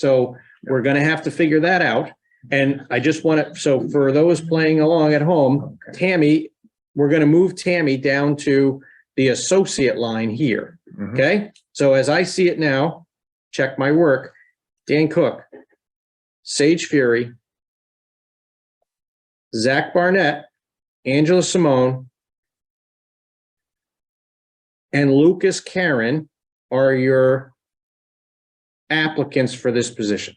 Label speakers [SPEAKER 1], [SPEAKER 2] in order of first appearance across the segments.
[SPEAKER 1] So we're gonna have to figure that out. And I just want to, so for those playing along at home, Tammy, we're gonna move Tammy down to the associate line here.
[SPEAKER 2] Mhm.
[SPEAKER 1] Okay, so as I see it now, check my work, Dan Cook, Sage Fury, Zach Barnett, Angela Simone, and Lucas Karen are your applicants for this position.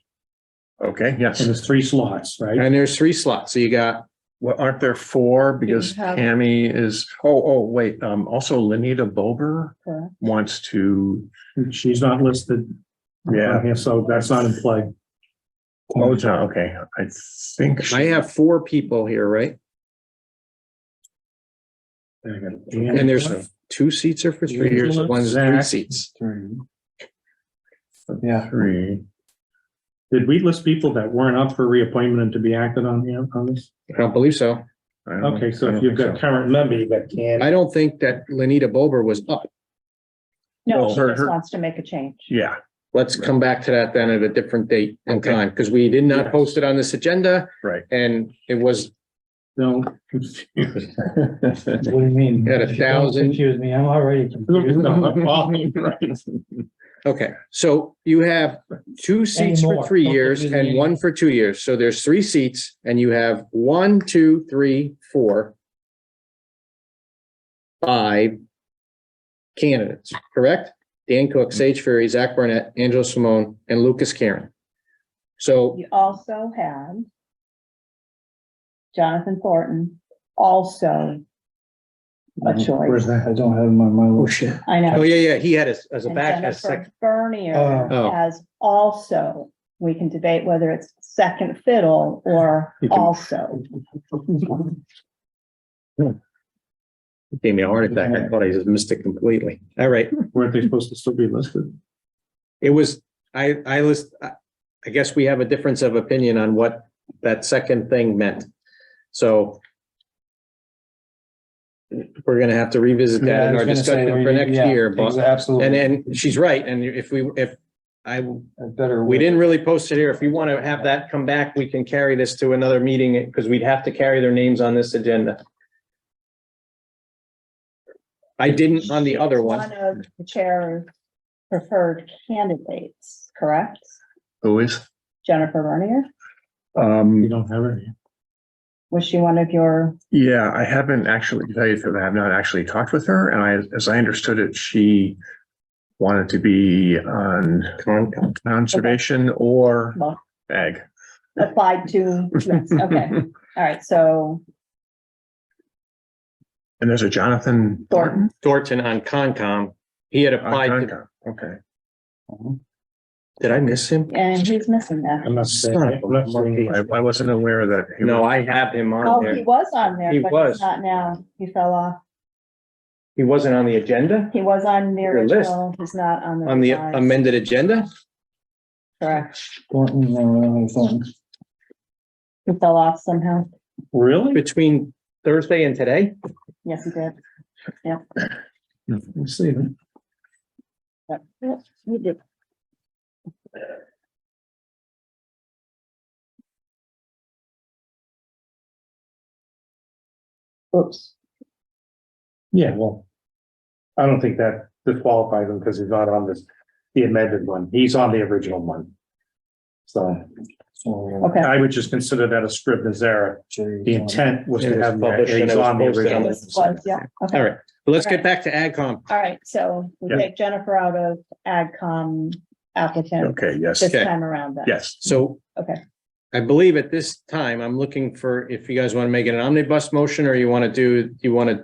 [SPEAKER 2] Okay,
[SPEAKER 3] And
[SPEAKER 2] yes.
[SPEAKER 3] there's three slots, right?
[SPEAKER 1] And there's three slots. So you got,
[SPEAKER 2] Well, aren't there four? Because
[SPEAKER 4] have-
[SPEAKER 2] Tammy is, oh, oh, wait, um, also Lenita Bober
[SPEAKER 4] Correct.
[SPEAKER 2] wants to.
[SPEAKER 3] She's not listed. on here, So that's not in play.
[SPEAKER 2] Oh, it's not, okay. I think, she-
[SPEAKER 1] I have four people here, right?
[SPEAKER 3] There you go.
[SPEAKER 1] And there's two seats are for three years, one's three
[SPEAKER 3] Zach.
[SPEAKER 1] seats.
[SPEAKER 5] Yeah,
[SPEAKER 2] three.
[SPEAKER 3] Did we list people that weren't up for reappointment and to be acted on here on this?
[SPEAKER 1] I don't believe so.
[SPEAKER 2] I don't-
[SPEAKER 3] Okay, so
[SPEAKER 2] I
[SPEAKER 3] if
[SPEAKER 2] don't
[SPEAKER 3] you've
[SPEAKER 2] think
[SPEAKER 3] got
[SPEAKER 2] so.
[SPEAKER 3] current member, you got
[SPEAKER 1] I
[SPEAKER 3] Ken.
[SPEAKER 1] don't think that Lenita Bober was up.
[SPEAKER 4] No,
[SPEAKER 2] Well,
[SPEAKER 4] she
[SPEAKER 2] her-
[SPEAKER 4] just
[SPEAKER 2] her-
[SPEAKER 4] wants to make a change.
[SPEAKER 2] Yeah,
[SPEAKER 1] Let's come back to that then at a different date and
[SPEAKER 2] Okay.
[SPEAKER 1] time, because we did not
[SPEAKER 3] Yes.
[SPEAKER 1] post it on this agenda.
[SPEAKER 2] Right.
[SPEAKER 1] And it was
[SPEAKER 3] No. confuse.
[SPEAKER 5] what do you mean?
[SPEAKER 1] At a
[SPEAKER 5] Don't
[SPEAKER 1] thousand-
[SPEAKER 5] Confuse me, I'm already confused.
[SPEAKER 1] Okay, so you have two seats for
[SPEAKER 5] Anymore.
[SPEAKER 1] three
[SPEAKER 5] Don't
[SPEAKER 1] years
[SPEAKER 5] give me
[SPEAKER 1] and
[SPEAKER 5] any-
[SPEAKER 1] one for two years. So there's three seats and you have one, two, three, four, five candidates, correct? Dan Cook, Sage Ferry, Zach Burnett, Angela Simone, and Lucas Karen. So
[SPEAKER 4] You also have Jonathan Thornton, also a choice.
[SPEAKER 5] Mhm. Where's that? I don't have him on my
[SPEAKER 3] Oh,
[SPEAKER 5] list.
[SPEAKER 3] shit.
[SPEAKER 4] I
[SPEAKER 1] Oh,
[SPEAKER 4] know.
[SPEAKER 1] yeah, yeah, he had as, as a
[SPEAKER 4] And
[SPEAKER 1] back, as
[SPEAKER 4] Jennifer
[SPEAKER 1] second.
[SPEAKER 4] Bernier
[SPEAKER 1] Oh.
[SPEAKER 4] has also, we can debate whether it's second fiddle or
[SPEAKER 3] You can-
[SPEAKER 4] also.
[SPEAKER 1] Gave me a heart attack. I thought I just missed it completely. All right.
[SPEAKER 3] Weren't they supposed to still be listed?
[SPEAKER 1] It was, I, I list, I I guess we have a difference of opinion on what that second thing meant. So we're gonna have to revisit that in our discussion for next year, but,
[SPEAKER 5] Absolutely.
[SPEAKER 1] and then she's right. And if we, if I,
[SPEAKER 5] Better.
[SPEAKER 1] we didn't really post it here. If you want to have that come back, we can carry this to another meeting because we'd have to carry their names on this agenda. I didn't on the other one.
[SPEAKER 4] One of the chair's preferred candidates, correct?
[SPEAKER 2] Who is?
[SPEAKER 4] Jennifer Bernier,
[SPEAKER 3] You
[SPEAKER 2] Um,
[SPEAKER 3] don't have it.
[SPEAKER 4] was she one of your,
[SPEAKER 2] yeah, I haven't actually, to tell you the truth, I have not actually talked with her and I, as I understood it, she wanted to be on conservation or
[SPEAKER 4] Well.
[SPEAKER 2] ag.
[SPEAKER 4] applied to? Yes, okay. All right, so
[SPEAKER 2] And there's a Jonathan
[SPEAKER 4] Thornton,
[SPEAKER 1] Thornton on Concom. He had applied to
[SPEAKER 2] Thornton. Okay.
[SPEAKER 1] Uh-huh. Did I miss him?
[SPEAKER 4] and he's missing that.
[SPEAKER 3] I'm not saying. I'm not saying-
[SPEAKER 2] I, I wasn't aware of that. he
[SPEAKER 1] No,
[SPEAKER 2] was-
[SPEAKER 1] I have him
[SPEAKER 4] Oh,
[SPEAKER 1] on
[SPEAKER 4] he
[SPEAKER 1] there.
[SPEAKER 4] was on there,
[SPEAKER 1] He
[SPEAKER 4] but
[SPEAKER 1] was.
[SPEAKER 4] he's not now. He fell off.
[SPEAKER 1] He wasn't on the agenda,
[SPEAKER 4] He was on the
[SPEAKER 1] Your list.
[SPEAKER 4] original, he's not on the.
[SPEAKER 1] on the
[SPEAKER 4] revised.
[SPEAKER 1] amended agenda.
[SPEAKER 4] Correct.
[SPEAKER 5] Thornton, no, no, no, Thornton.
[SPEAKER 4] He fell off somehow.
[SPEAKER 3] Really?
[SPEAKER 1] Between Thursday and today,
[SPEAKER 4] Yes, he did.
[SPEAKER 2] Hmm.
[SPEAKER 3] Let's see then.
[SPEAKER 4] Yep, he did. Oops.
[SPEAKER 3] Yeah, well. I don't think that disqualifies him because he's not on this, the amended one. He's on the original one. So
[SPEAKER 5] So,
[SPEAKER 4] Okay.
[SPEAKER 3] I would just consider that a scrivener's error.
[SPEAKER 5] Jerry
[SPEAKER 3] The
[SPEAKER 5] Thornton.
[SPEAKER 3] intent was
[SPEAKER 1] It
[SPEAKER 3] to
[SPEAKER 1] was
[SPEAKER 3] have that,
[SPEAKER 1] published and
[SPEAKER 3] he's
[SPEAKER 1] it was
[SPEAKER 3] on the
[SPEAKER 1] posted on
[SPEAKER 3] original.
[SPEAKER 4] This was, yeah, okay.
[SPEAKER 1] all right, but let's get
[SPEAKER 4] Alright.
[SPEAKER 1] back to AgCom.
[SPEAKER 4] All right, so we
[SPEAKER 3] Yeah.
[SPEAKER 4] take Jennifer out of AgCom applicant
[SPEAKER 2] Okay, yes,
[SPEAKER 4] this
[SPEAKER 1] Okay.
[SPEAKER 4] time around then.
[SPEAKER 2] yes.
[SPEAKER 1] So.
[SPEAKER 4] Okay.
[SPEAKER 1] I believe at this time, I'm looking for if you guys want to make it an omnibus motion or you want to do, you want to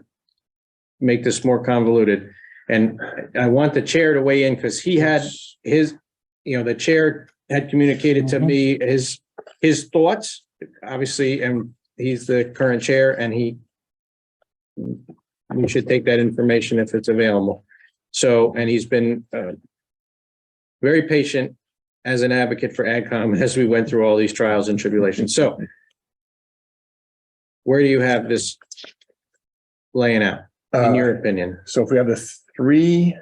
[SPEAKER 1] make this more convoluted. And I want the chair to weigh in because he had his, you know, the chair had communicated to me his, his thoughts, obviously, and he's the current chair and he we should take that information if it's available. So, and he's been uh, very patient as an advocate for AdCom as we went through all these trials and tribulations. So where do you have this laying out,
[SPEAKER 2] Uh,
[SPEAKER 1] in your opinion?
[SPEAKER 2] So if we have the three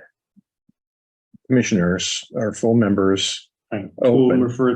[SPEAKER 2] commissioners or full members,
[SPEAKER 3] Right.
[SPEAKER 1] Open.
[SPEAKER 3] Refer